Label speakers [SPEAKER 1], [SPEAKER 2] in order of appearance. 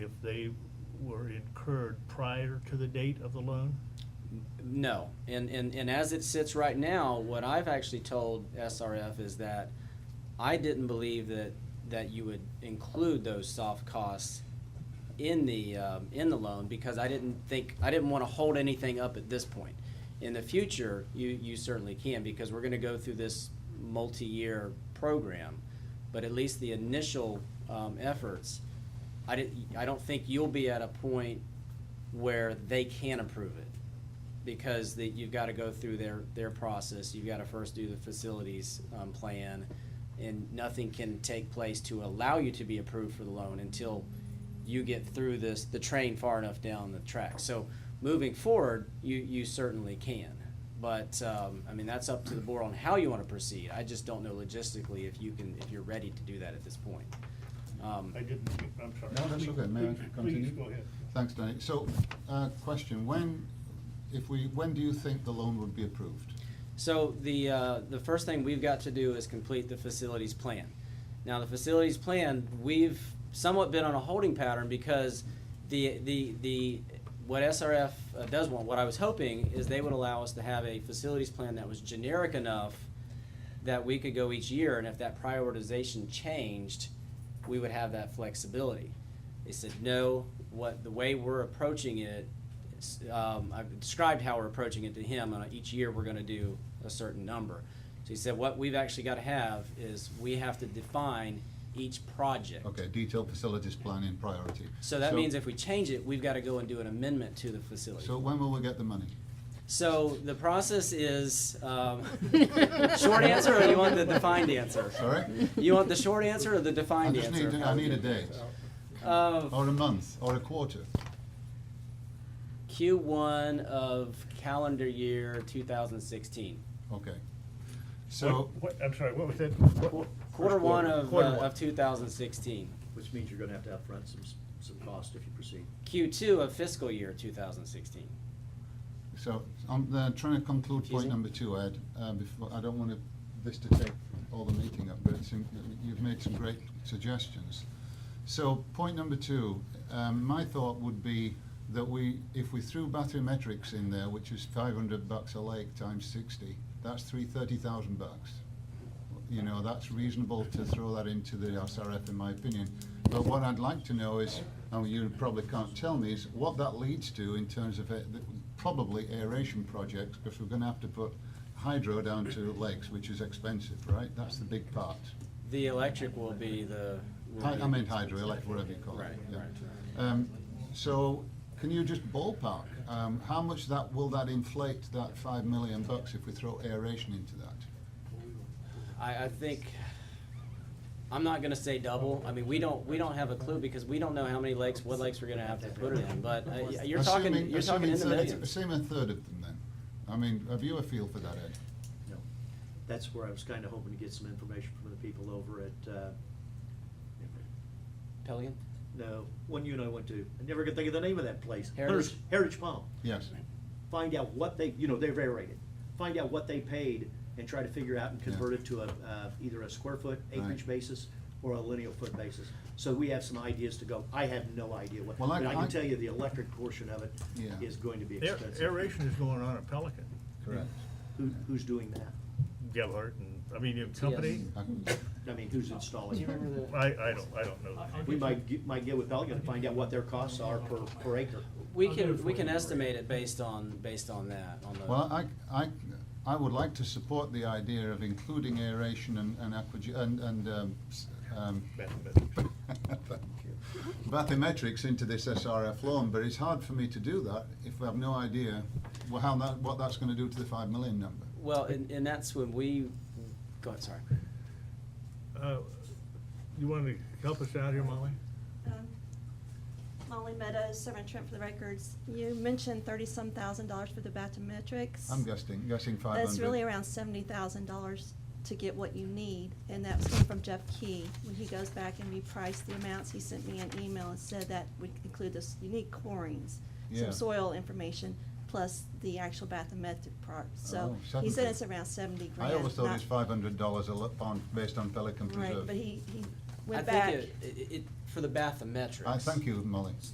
[SPEAKER 1] if they were incurred prior to the date of the loan?
[SPEAKER 2] No, and, and, and as it sits right now, what I've actually told SRF is that I didn't believe that, that you would include those soft costs in the, um, in the loan because I didn't think, I didn't want to hold anything up at this point. In the future, you, you certainly can because we're going to go through this multi-year program. But at least the initial, um, efforts, I didn't, I don't think you'll be at a point where they can approve it because that you've got to go through their, their process. You've got to first do the facilities um, plan, and nothing can take place to allow you to be approved for the loan until you get through this the train far enough down the track. So moving forward, you you certainly can, but um, I mean that's up to the board on how you want to proceed. I just don't know logistically if you can if you're ready to do that at this point. Um,
[SPEAKER 1] I didn't, I'm sorry.
[SPEAKER 3] No, that's
[SPEAKER 1] Please-
[SPEAKER 3] okay, may I
[SPEAKER 1] please-
[SPEAKER 3] continue?
[SPEAKER 1] Please, go ahead.
[SPEAKER 3] Thanks, Danny. So, uh, question, when, if we, when do you think the loan would be approved?
[SPEAKER 2] So the, uh, the first thing we've got to do is complete the facilities plan. Now, the facilities plan, we've somewhat been on a holding pattern because the, the, the, what SRF uh, does want, what I was hoping is they would allow us to have a facilities plan that was generic enough that we could go each year, and if that prioritization changed, we would have that flexibility. They said, no, what, the way we're approaching it, it's, um, I've described how we're approaching it to him, and each year we're gonna do a certain number. So he said, what we've actually gotta have is, we have to define each project.
[SPEAKER 3] Okay, detailed facilities plan in priority.
[SPEAKER 2] So that means if we change it, we've gotta go and do an amendment to the facility.
[SPEAKER 3] So when will we get the money?
[SPEAKER 2] So the process is, um, short answer, or you want the defined answer?
[SPEAKER 3] Sorry?
[SPEAKER 2] You want the short answer or the
[SPEAKER 3] I
[SPEAKER 2] defined
[SPEAKER 3] just
[SPEAKER 2] answer?
[SPEAKER 3] need, I need a date,
[SPEAKER 2] Uh,
[SPEAKER 3] or a month, or a quarter.
[SPEAKER 2] Q1 of calendar year 2016.
[SPEAKER 3] Okay. So,
[SPEAKER 1] What, what- I'm sorry, what was that? What-
[SPEAKER 2] Quarter
[SPEAKER 1] first
[SPEAKER 2] one of, uh,
[SPEAKER 1] Quarter one.
[SPEAKER 2] of 2016.
[SPEAKER 4] Which means you're gonna have to upfront some, s- some cost if you proceed.
[SPEAKER 2] Q2 of fiscal year 2016.
[SPEAKER 3] so I'm uh, trying to conclude
[SPEAKER 2] Confusing.
[SPEAKER 3] point number two, Ed, uh, before, I don't want to- this to take all the meeting up, but it's, in- you've made some great suggestions. So point number two, um, my thought would be that we, if we threw bathymetrics in there, which is five hundred bucks a lake times sixty, that's three thirty thousand bucks. You know, that's reasonable to throw that into the SRF in my opinion. But what I'd like to know is, and you probably can't tell me, is what that leads to in terms of a- probably aeration projects, because we're gonna have to put hydro down to lakes, which is expensive, right? That's the big part.
[SPEAKER 2] The electric will be the. will
[SPEAKER 3] Hy-
[SPEAKER 2] be-
[SPEAKER 3] I meant hydroelectric, whatever you call it.
[SPEAKER 2] Right,
[SPEAKER 3] yeah.
[SPEAKER 2] right.
[SPEAKER 3] Um, so, can you just ballpark, um, how much that, will that inflate that five million bucks if we throw aeration into that?
[SPEAKER 2] I, I think, I'm not gonna say double, I mean, we don't, we don't have a clue because we don't know how many lakes, what lakes we're gonna have to put it in, but uh, you're talking,
[SPEAKER 3] Assuming-
[SPEAKER 2] you're talking in the
[SPEAKER 3] assuming uh, 30
[SPEAKER 2] millions.
[SPEAKER 3] Assume a third of them then. I mean, have you a feel for that, Ed?
[SPEAKER 4] No. That's where I was kinda hoping to get some information from the people over at, uh,
[SPEAKER 2] Pelican?
[SPEAKER 4] no, one you and I went to, I never could think of the name of that place.
[SPEAKER 2] Heritage?
[SPEAKER 4] Heritage Palm.
[SPEAKER 3] Yes,
[SPEAKER 4] Find out what they, you know, they're aerated. Find out what they paid and try to figure out and
[SPEAKER 3] Yeah.
[SPEAKER 4] convert it to a, uh, either a square foot acreage
[SPEAKER 3] Right.
[SPEAKER 4] basis or a lineal foot basis. So we have some ideas to go. I have no idea what,
[SPEAKER 3] Well,
[SPEAKER 4] but
[SPEAKER 3] I-
[SPEAKER 4] I
[SPEAKER 3] I-
[SPEAKER 4] can tell you the electric portion of it
[SPEAKER 3] Yeah.
[SPEAKER 4] is going to be
[SPEAKER 1] Air-
[SPEAKER 4] expensive.
[SPEAKER 1] Aeration is going on at Pelican,
[SPEAKER 3] correct.
[SPEAKER 4] Who, who's doing that?
[SPEAKER 1] Gebhardt and, I mean, in company.
[SPEAKER 3] I can-
[SPEAKER 4] I mean, who's installing it?
[SPEAKER 1] I, I don't, I don't know. that.
[SPEAKER 4] We might, get- might get with Pelican to find out what their costs are per, per acre.
[SPEAKER 2] We can, we can estimate it based on, based on that, on the.
[SPEAKER 3] Well, I, I, I would like to support the idea of including aeration and, and aqua, and, and, um, s- um,
[SPEAKER 1] Mathematics.
[SPEAKER 3] Thank you. Bathymetrics into this SRF loan, but it's hard for me to do that if we have no idea wha- how that, what that's gonna do to the five million number.
[SPEAKER 2] Well, and, and that's when we, go ahead, sorry.
[SPEAKER 1] Uh, You want to help us out here, Molly?
[SPEAKER 5] Um, Molly Meadows, Servant Trent for the records. You mentioned thirty-some thousand dollars for the bathymetrics.
[SPEAKER 3] I'm guessing, guessing five hundred.
[SPEAKER 5] That's really around seventy thousand dollars to get what you need, and that was coming from Jeff Key. When he goes back and repriced the amounts, he sent me an email and said that would include this unique corings,
[SPEAKER 3] Yeah.
[SPEAKER 5] some soil information, plus the actual bathymetric part. So
[SPEAKER 3] Oh,
[SPEAKER 5] he said
[SPEAKER 3] 70.
[SPEAKER 5] it's around seventy grand.
[SPEAKER 3] I always thought
[SPEAKER 5] not-
[SPEAKER 3] it's five hundred dollars a lo- pound based on Pelican Preserve.
[SPEAKER 5] Right, but he, he went
[SPEAKER 2] I
[SPEAKER 5] back.
[SPEAKER 2] think it, it, it, for the bathymetrics.
[SPEAKER 3] I thank you, Molly.